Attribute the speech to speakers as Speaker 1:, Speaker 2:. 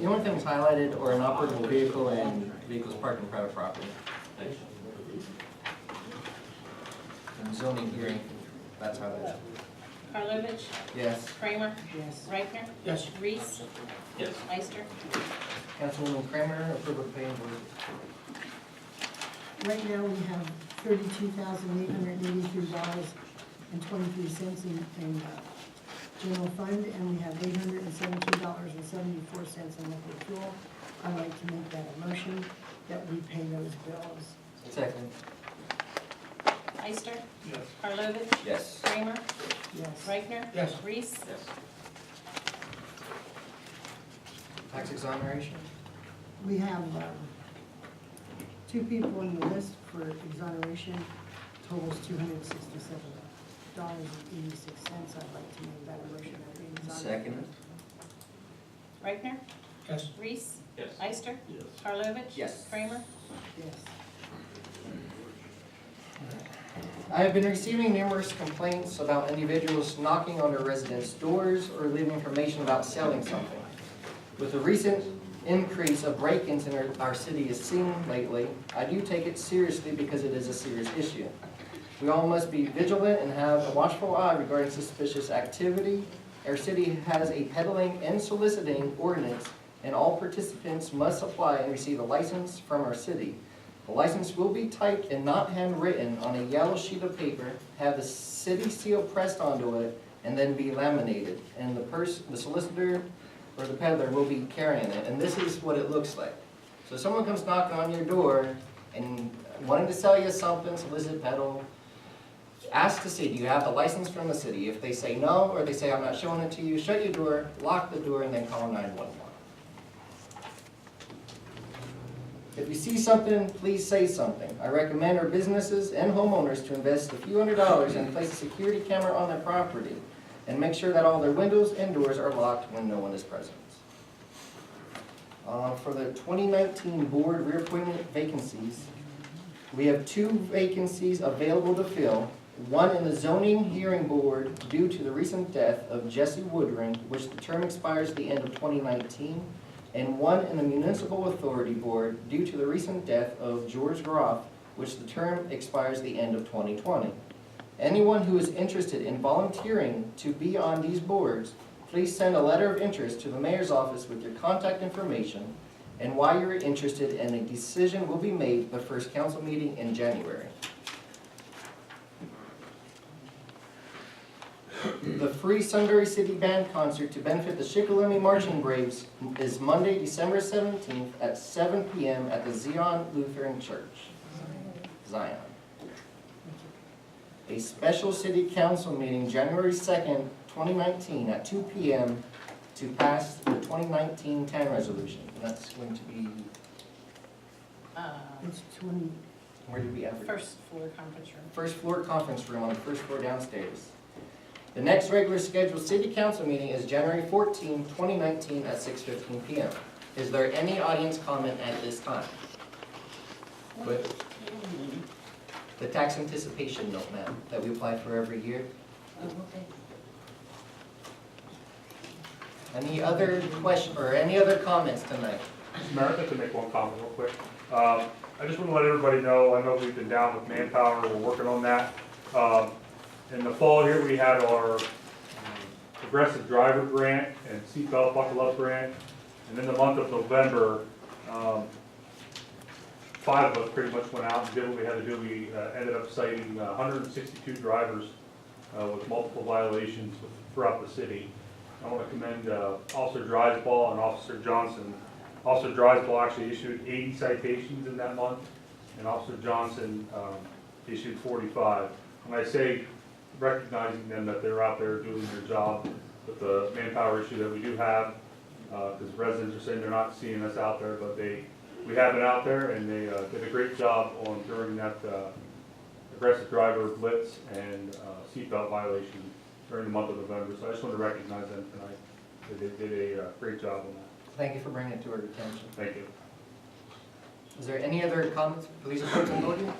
Speaker 1: The only things highlighted are inoperable vehicle and vehicles parked on private property. And zoning hearing, that's highlighted.
Speaker 2: Karlovic,
Speaker 1: Yes.
Speaker 2: Kramer,
Speaker 3: Yes.
Speaker 2: Reichner. Yes. Reese,
Speaker 4: Yes.
Speaker 2: Meister.
Speaker 1: Councilwoman Kramer, approve of paying board.
Speaker 3: Right now, we have thirty-two thousand eight hundred eighty-three dollars and twenty-three cents in, in uh, general fund, and we have eight hundred and seventeen dollars and seventy-four cents in liquid fuel. I'd like to make that a motion that we pay those bills.
Speaker 1: Second.
Speaker 2: Meister. Yes. Karlovic,
Speaker 1: Yes.
Speaker 2: Kramer,
Speaker 3: Yes.
Speaker 2: Reichner. Yes. Reese,
Speaker 4: Yes.
Speaker 1: Tax exoneration?
Speaker 3: We have um, two people on the list for exoneration, totals two hundred and sixty-seven dollars and eighty-six cents. I'd like to make that a motion that we exonerate.
Speaker 1: Second.
Speaker 2: Reichner,
Speaker 5: Yes.
Speaker 2: Reese,
Speaker 4: Yes.
Speaker 2: Meister,
Speaker 4: Yes.
Speaker 2: Karlovic.
Speaker 1: Yes.
Speaker 2: Kramer,
Speaker 3: Yes.
Speaker 1: I have been receiving numerous complaints about individuals knocking on their residents' doors or leaving information about selling something. With the recent increase of break-ins in our, our city is seen lately, I do take it seriously because it is a serious issue. We all must be vigilant and have a watchful eye regarding suspicious activity. Our city has a peddling and soliciting ordinance, and all participants must apply and receive a license from our city. The license will be typed and not handwritten on a yellow sheet of paper, have the city seal pressed onto it, and then be laminated. And the person, the solicitor or the peddler will be carrying it, and this is what it looks like. So someone comes knocking on your door and wanting to sell you something, solicit, peddle, ask the city, do you have the license from the city? If they say no, or they say, I'm not showing it to you, shut your door, lock the door, and then call nine-one-one. If you see something, please say something. I recommend our businesses and homeowners to invest a few hundred dollars and place a security camera on their property and make sure that all their windows and doors are locked when no one is present. Uh, For the 2019 board reappointment vacancies, we have two vacancies available to fill. One in the zoning hearing board due to the recent death of Jesse Woodring, which the term expires at the end of 2019 and one in the Municipal Authority Board due to the recent death of George Groff, which the term expires the end of 2020. Anyone who is interested in volunteering to be on these boards, please send a letter of interest to the mayor's office with your contact information and why you're interested, and a decision will be made the first council meeting in January. The free Sunbury City Band concert to benefit the Shikellamy Marching Braves is Monday, December 17th at 7 PM at the Zion Lutheran Church, Zion. A special city council meeting, January 2nd, 2019, at 2 PM to pass the 2019-10 resolution. And that's going to be,
Speaker 2: uh,
Speaker 3: It's twenty,
Speaker 1: where did we advertise?
Speaker 2: first floor conference room.
Speaker 1: first floor conference room on the first floor downstairs. The next regular scheduled city council meeting is January 14, 2019 at 6:15 PM. Is there any audience comment at this time? But the tax anticipation note, ma'am, that we apply for every year. Any other question or any other comments tonight?
Speaker 6: Mayor, I'd like to make one comment real quick. Um, I just want to let everybody know, I know we've been down with manpower, we're working on that. Um, In the fall here, we had our um, progressive driver grant and seatbelt buckle up grant. And in the month of November, um, five of us pretty much went out and did what we had to do. We uh, ended up citing uh, 162 drivers uh, with multiple violations throughout the city. I want to commend uh, Officer Drysdale and Officer Johnson. Officer Drysdale actually issued 80 citations in that month, and Officer Johnson um, issued 45. When I say recognizing them that they're out there doing their job with the manpower issue that we do have, because residents are saying they're not seeing us out there, but they, we have it out there, and they uh, did a great job on during that uh, aggressive driver blitz and uh, seatbelt violation during the month of November. So I just want to recognize them tonight. They did- did a uh, great job on that.
Speaker 1: Thank you for bringing it to our attention.
Speaker 6: Thank you.
Speaker 1: Is there any other comments, police reports on the podium?